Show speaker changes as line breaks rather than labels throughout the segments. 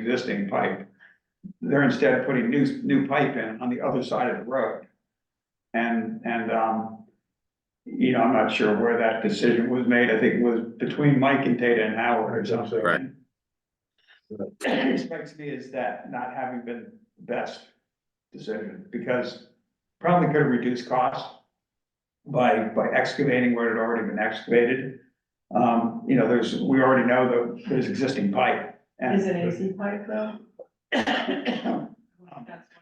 existing pipe. They're instead putting new, new pipe in on the other side of the road. And, and, um, you know, I'm not sure where that decision was made. I think it was between Mike and Tata and Howard or something.
Right.
What strikes me is that not having been the best decision, because probably could have reduced costs by, by excavating where it had already been excavated. Um, you know, there's, we already know that there's existing pipe. and-
Is it AC pipe though?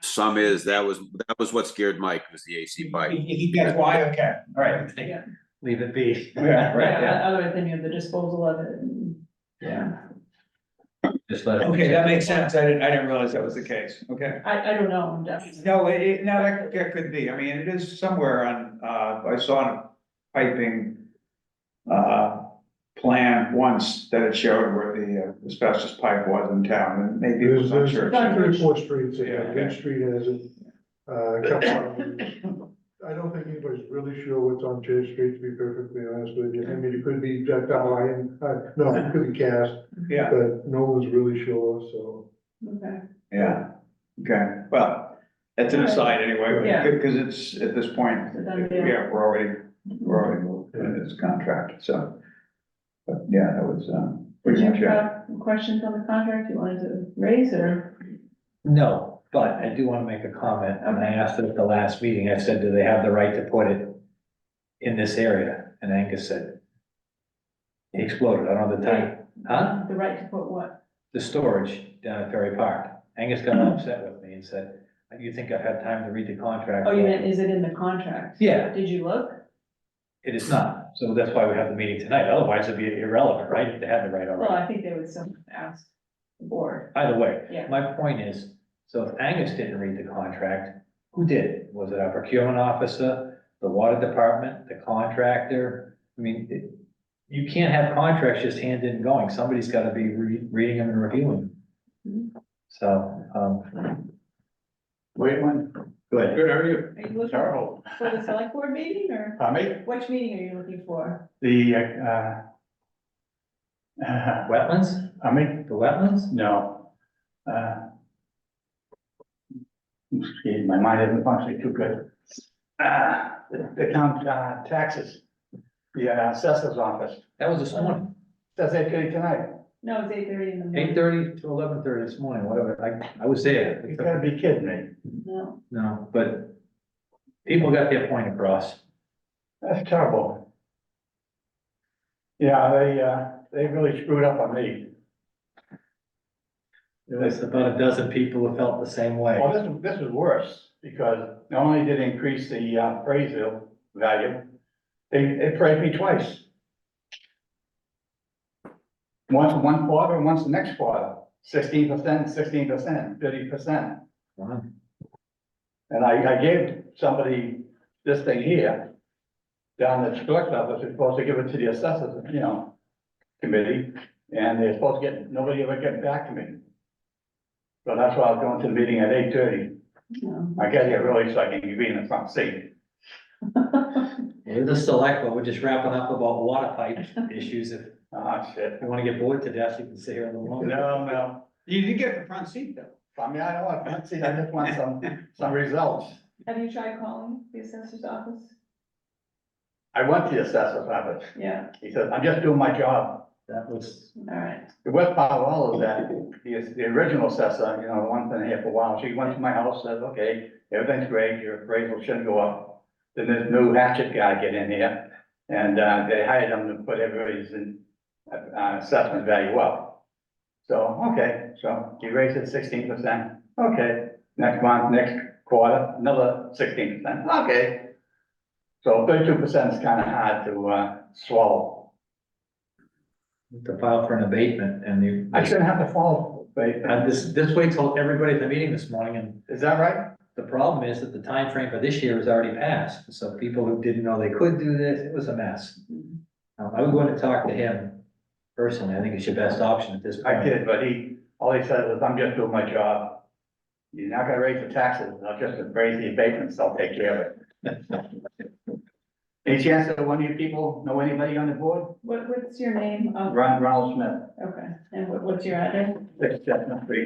Some is, that was, that was what scared Mike, was the AC pipe.
That's why, okay, all right.
Leave it be.
Yeah, right, yeah.
Yeah, otherwise then you have the disposal of it and. Yeah.
Just let it-
Okay, that makes sense. I didn't, I didn't realize that was the case, okay.
I, I don't know, I'm definitely.
No, it- it, no, that, that could be, I mean, it is somewhere on, uh, I saw a piping. Uh, plan once that it showed where the uh, asbestos pipe was in town, and maybe it
There's,
was on
there's
church.
three or four streets, that
Yeah.
have Main Street has it, uh, a couple of them. I don't think anybody's really sure what's on J Street, to be perfectly honest with you, I mean, it could be ductile iron, uh, no, it could be cast,
Yeah,
but no one's really sure, so.
Okay.
yeah, okay, well, that's an aside anyway,
Yeah.
but, because it's, at this point,
So then, yeah.
yeah, we're already, we're already moved in this contract, so. But, yeah, that was,
uh,
um,
Did
pretty much,
you
it.
have uh, questions on the contract you wanted to raise or?
No, but I do want to make a comment, and I asked it at the last meeting, I said, do they have the right to put it in this area? And Angus said, he exploded, I don't know the time, huh?
The right to put what?
The storage down at Ferry Park. Angus got upset with me and said, you think I've had time to read the contract?
Oh, you meant, is it in the contract?
Yeah.
Did you look?
It is not, so that's why we have the meeting tonight, otherwise it'd be irrelevant, right, if they had the right
Well,
already.
I think they would still ask the board.
Either way,
Yeah.
my point is, so if Angus didn't read the contract, who did? Was it our procurement officer, the water department, the contractor? I mean, it- you can't have contracts just handed and going, somebody's gotta be re- reading them and reviewing them. So, um,
Wait one.
good,
Good, how are you?
Are you looking for
Carol,
the select board meeting or
Tommy,
which meeting are you looking for?
the, uh, uh,
wetlands,
Tommy,
the wetlands?
no. Uh, Excuse, my mind isn't functioning too good. Uh, the the town, uh, taxes, the uh, assessor's office,
That was this morning,
does that get it tonight?
No, it's eight thirty in the morning.
eight thirty to eleven thirty this morning, whatever, I, I was there.
You gotta be kidding me,
No,
No, but people got their point across.
that's terrible. Yeah, they, uh, they really screwed up on me.
There was about a dozen people who felt the same way.
Well, this, is- this is worse, because not only did it increase the uh, appraisal value, they, they appraised me twice. Once in one quarter, and once the next quarter, sixteen percent, sixteen percent, thirty percent.
Wow.
And I, I gave somebody this thing here, down at the collector office, they're supposed to give it to the assessors, you know, committee, and they're supposed to get, nobody ever get back to me. So that's why I was going to the meeting at eight thirty.
no.
I got here early so I can be in the front seat.
We're the select, but we're just wrapping up about water pipe issues. If
Ah, shit.
you want to get bored to death, you can sit here a little longer.
No, no.
You did get the front seat though.
I mean, I don't want a front seat. I just want some, some results.
Have you tried calling the assessor's office?
I went to the assessor's office.
Yeah,
He said, I'm just doing my job.
That was,
all right.
The worst part of all of that is the original assessor, you know, the one thing here for a while, she went to my house, said, okay, everything's great, your appraisal shouldn't go up. Then this new hatchet guy get in here and, uh, they hired him to put everybody's, uh, assessment value up. So, okay, so he raised it sixteen percent, okay, next month, next quarter, another sixteen percent, okay. So thirty-two percent is kind of hard to, uh, swallow.
to file for an abatement and you.
I shouldn't have to follow, but, uh,
And this, this way told everybody at the meeting this morning and
is that right?
the problem is that the time frame for this year has already passed. So people who didn't know they could do this, it was a mess. Um, I was going to talk to him personally. I think it's your best option at this point.
I did, but he, all he said was, I'm just doing my job. You're not gonna raise the taxes, I'll just raise the abatements, I'll take care of it. Any chance that one of you people know anybody on the board?
What, what's your name? Um,
Ron, Ronald Smith,
Okay, and what, what's your address?
six Chestnut Street.